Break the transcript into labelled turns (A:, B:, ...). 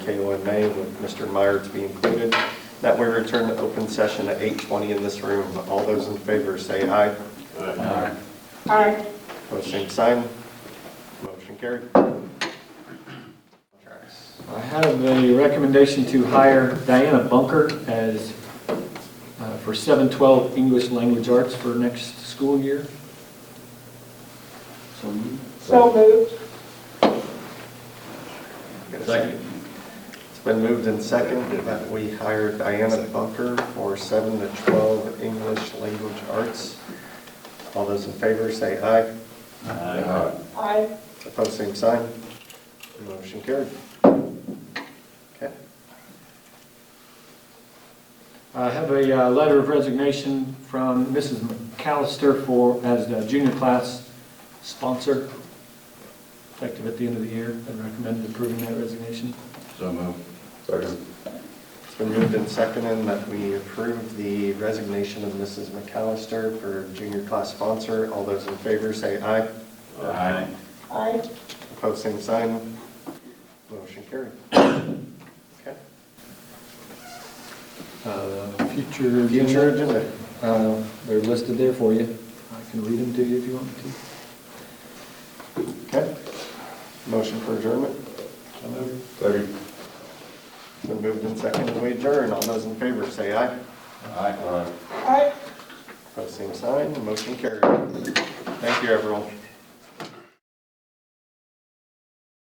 A: KOMA with Mr. Meyer to be included, that we return to open session at 8:20 in this room. All those in favor say aye.
B: Aye.
A: Post same sign. Motion carried.
C: I have a recommendation to hire Diana Bunker as, uh, for 712 English Language Arts for next school year.
B: So moved.
A: Get a Second. It's been moved and seconded that we hire Diana Bunker for 7 to 12 English language arts. All those in favor say aye.
B: Aye.
A: Opposed, same sign. Motion carried. Okay.
C: I have a uh, letter of resignation from Mrs. McAllister for, as the junior class sponsor, effective at the end of the year. I recommend approving that resignation.
D: So moved. Second.
A: It's been moved and seconded that we approve the resignation of Mrs. McAllister for junior class sponsor. All those in favor say aye.
D: Aye.
B: Aye.
A: Opposed, same sign. Motion carried. Okay.
C: Uh, Future
A: Future
C: agenda,
A: agenda.
C: uh, they're listed there for you. I can read them to you if you want me to.
A: Okay. Motion for adjournment.
D: Second.
A: It's been moved and seconded we adjourn. All those in favor say aye.
D: Aye.
B: Aye.
A: Opposed, same sign. Motion carried. Thank you, everyone.